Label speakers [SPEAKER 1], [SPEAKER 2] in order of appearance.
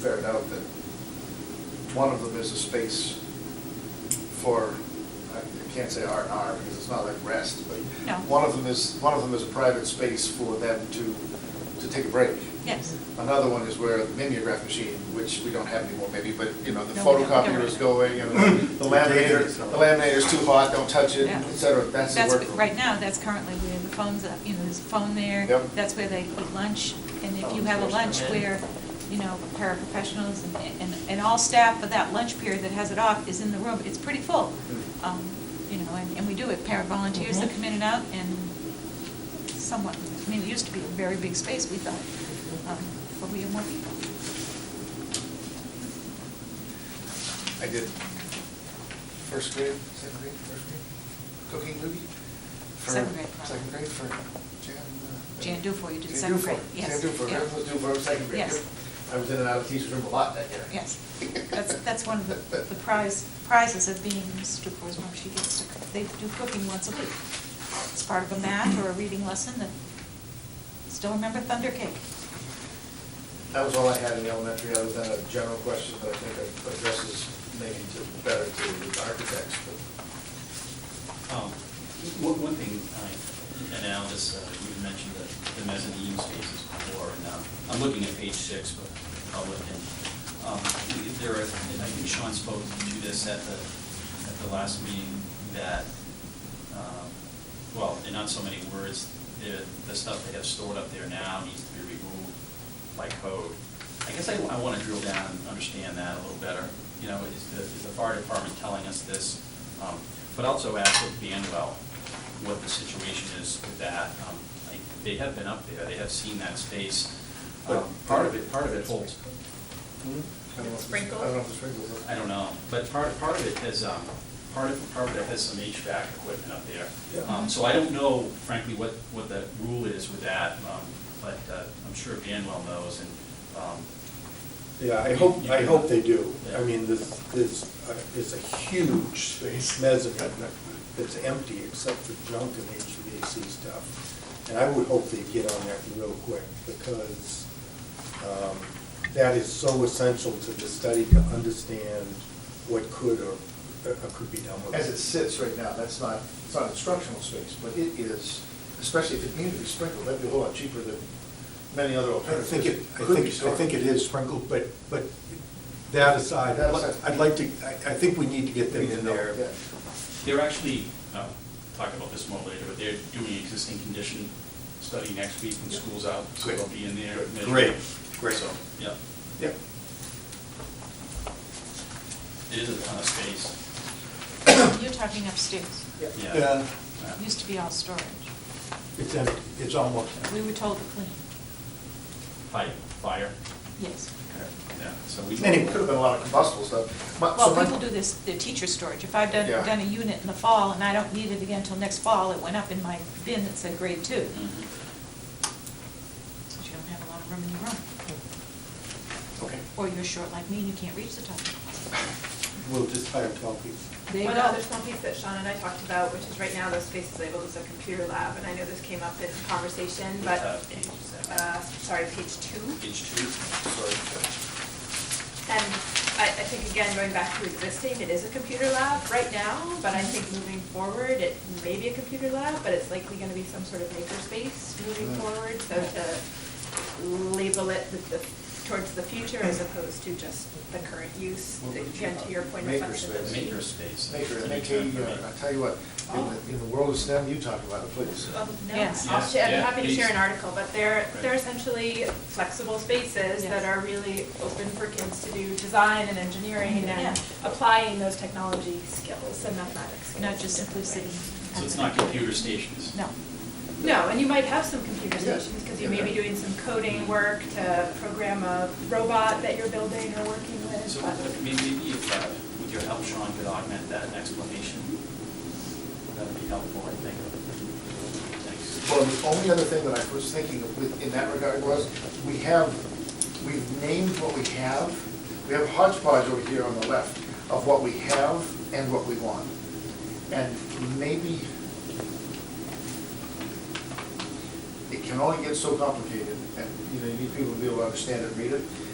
[SPEAKER 1] ferret out that one of them is a space for, I I can't say R and R because it's not like rest, but
[SPEAKER 2] No.
[SPEAKER 1] one of them is, one of them is a private space for them to, to take a break.
[SPEAKER 2] Yes.
[SPEAKER 1] Another one is where the mimeograph machine, which we don't have anymore maybe, but, you know, the
[SPEAKER 2] No, we don't.
[SPEAKER 1] photocopier is going and the laminator, the laminator's too hot, don't touch it,
[SPEAKER 2] Yeah.
[SPEAKER 1] et cetera. That's the work.
[SPEAKER 2] Right now, that's currently where the phone's up, you know, there's a phone there.
[SPEAKER 1] Yep.
[SPEAKER 2] That's where they eat lunch, and if you
[SPEAKER 3] Phones
[SPEAKER 2] have a
[SPEAKER 3] first
[SPEAKER 2] lunch
[SPEAKER 3] come in.
[SPEAKER 2] where, you know, paraprofessionals and, and, and all staff for that lunch period that has it off is in the room, it's pretty full.
[SPEAKER 1] Mm.
[SPEAKER 2] Um, You know, and, and we do it, para volunteers that
[SPEAKER 3] Mhm.
[SPEAKER 2] come in and out, and somewhat, I mean, it used to be a very big space, we thought, um, but we have more people.
[SPEAKER 1] I did first grade, second grade, first grade, cooking movie. for-
[SPEAKER 2] Second grade, probably.
[SPEAKER 1] Second grade for Jan. uh,
[SPEAKER 2] Jan Dufour, you did
[SPEAKER 1] Jan
[SPEAKER 2] second
[SPEAKER 1] Dufour,
[SPEAKER 2] grade, yes,
[SPEAKER 1] Jan Dufour,
[SPEAKER 2] yeah.
[SPEAKER 1] everyone was Dufour, second grade.
[SPEAKER 2] Yes.
[SPEAKER 1] yep. I was in and out of teacher's room a lot that year.
[SPEAKER 2] Yes, that's, that's one of the the prize, prizes of being Mrs. Dufour's mom, she gets to, cook. they do cooking once a week. It's part of a math or a reading lesson that, still remember Thunder Cake?
[SPEAKER 1] That was all I had in the elementary, other than a general question that I think addresses maybe to, better to architects, but.
[SPEAKER 4] Um, One one thing, I- and Al, this, uh, you had mentioned the the mezzanine spaces before, and um, I'm looking at page six, but public, and um, there are, and I think Sean spoke to this at the, at the last meeting, that, um, well, in not so many words, the, the stuff they have stored up there now needs to be removed by code. I guess I, I want to drill down and understand that a little better. You know, is the, is the fire department telling us this? Um, But also ask with Banwell what the situation is with that. Um, I- They have been up there, they have seen that space. Um, Part of it, part of it holds,
[SPEAKER 1] I don't know if the-
[SPEAKER 5] Sprinkles?
[SPEAKER 1] I don't know if the sprinkles. are-
[SPEAKER 4] I don't know, but part, part of it has, um, part of, part of it has some HVAC equipment up there.
[SPEAKER 1] Yeah.
[SPEAKER 4] Um, so I don't know frankly what, what the rule is with that, um, but, uh, I'm sure Banwell knows and, um,
[SPEAKER 6] Yeah, I hope, I hope they do.
[SPEAKER 4] Yeah.
[SPEAKER 6] I mean, this, this, uh, it's a huge space, mezzanine, that's empty except for junk and HVAC stuff. And I would hope they get on that real quick, because um, that is so essential to the study to understand what could or uh, could be done with it.
[SPEAKER 1] As it sits right now, that's not, it's not instructional space, but it is, especially if it needed to be sprinkled, that'd be a whole lot cheaper than many other
[SPEAKER 6] I
[SPEAKER 1] alternatives.
[SPEAKER 6] think it, I
[SPEAKER 1] Could
[SPEAKER 6] think,
[SPEAKER 1] be
[SPEAKER 6] I
[SPEAKER 1] stored.
[SPEAKER 6] think it is sprinkled, but, but that aside, I'd li- I'd like to, I, I think we need to get them in there.
[SPEAKER 1] Yeah.
[SPEAKER 4] They're actually, uh, talk about this more later, but they're doing existing condition study next week when school's out, so they'll be in there. measuring.
[SPEAKER 6] Great, great.
[SPEAKER 4] So, yeah,
[SPEAKER 6] Yep.
[SPEAKER 4] it is a ton of space,
[SPEAKER 2] You're talking upstairs,
[SPEAKER 4] yeah.
[SPEAKER 6] Yeah,
[SPEAKER 4] Yeah.
[SPEAKER 2] It used to be all storage.
[SPEAKER 6] it's empty, it's almost
[SPEAKER 2] We
[SPEAKER 6] empty.
[SPEAKER 2] were told to clean,
[SPEAKER 4] Fire, fire,
[SPEAKER 2] yes.
[SPEAKER 4] yeah, so we.
[SPEAKER 1] Anyway, could have been a lot of combustible stuff. My- so
[SPEAKER 2] Well,
[SPEAKER 1] my-
[SPEAKER 2] people do this, their teacher storage. If I've done,
[SPEAKER 1] Yeah.
[SPEAKER 2] done a unit in the fall and I don't need it again until next fall, it went up in my bin that said grade two.
[SPEAKER 4] Mhm.
[SPEAKER 2] So you don't have a lot of room in your room.
[SPEAKER 1] Okay.
[SPEAKER 2] Or you're short like me and you can't reach the top.
[SPEAKER 6] We'll just hire twelve people.
[SPEAKER 2] There you
[SPEAKER 5] One
[SPEAKER 2] go.
[SPEAKER 5] other small piece that Sean and I talked about, which is right now those spaces labeled as a computer lab, and I know this came up in conversation, but,
[SPEAKER 4] Uh, page seven.
[SPEAKER 5] uh, sorry, page two.
[SPEAKER 4] Page two, sorry.
[SPEAKER 5] And I, I think again, going back to existing, it is a computer lab right now, but I think moving forward, it may be a computer lab, but it's likely gonna be some sort of makerspace moving
[SPEAKER 1] Mm.
[SPEAKER 5] forward, so to label it with the, towards the future as opposed to just the current use,
[SPEAKER 4] What would you
[SPEAKER 5] again, to your point of
[SPEAKER 1] Makerspace.
[SPEAKER 5] flexibility.
[SPEAKER 4] Maker space.
[SPEAKER 1] Maker,
[SPEAKER 4] That's a new
[SPEAKER 1] make a,
[SPEAKER 4] term for me.
[SPEAKER 1] uh, I tell you what, in the, in the world of STEM, you talk about it, please.
[SPEAKER 5] Um, No,
[SPEAKER 2] Yes.
[SPEAKER 5] I'll share, I'm
[SPEAKER 4] Yeah,
[SPEAKER 5] happy to
[SPEAKER 4] please.
[SPEAKER 5] share an article, but they're, they're
[SPEAKER 4] Right.
[SPEAKER 5] essentially flexible spaces
[SPEAKER 2] Yes.
[SPEAKER 5] that are really open for kids to do design and engineering
[SPEAKER 2] Yeah.
[SPEAKER 5] and applying those technology skills and mathematics skills.
[SPEAKER 2] Not just
[SPEAKER 5] in
[SPEAKER 2] simply sitting.
[SPEAKER 5] different ways.
[SPEAKER 4] So it's not computer stations?
[SPEAKER 2] No.
[SPEAKER 5] No, and you might have some computer
[SPEAKER 1] Yeah.
[SPEAKER 5] stations, because you may be
[SPEAKER 1] Yeah.
[SPEAKER 5] doing some coding work to program a robot that you're building or working with,
[SPEAKER 4] So
[SPEAKER 5] but.
[SPEAKER 4] look, maybe maybe if, uh, with your help, Sean could augment that explanation. That would be helpful, I think. Thanks.
[SPEAKER 1] Well, the only other thing that I was thinking of with, in that regard was, we have, we've named what we have. We have hodgepodge over here on the left of what we have and what we want. And maybe it can only get so complicated, and, you know, you need people to be able to understand and read it.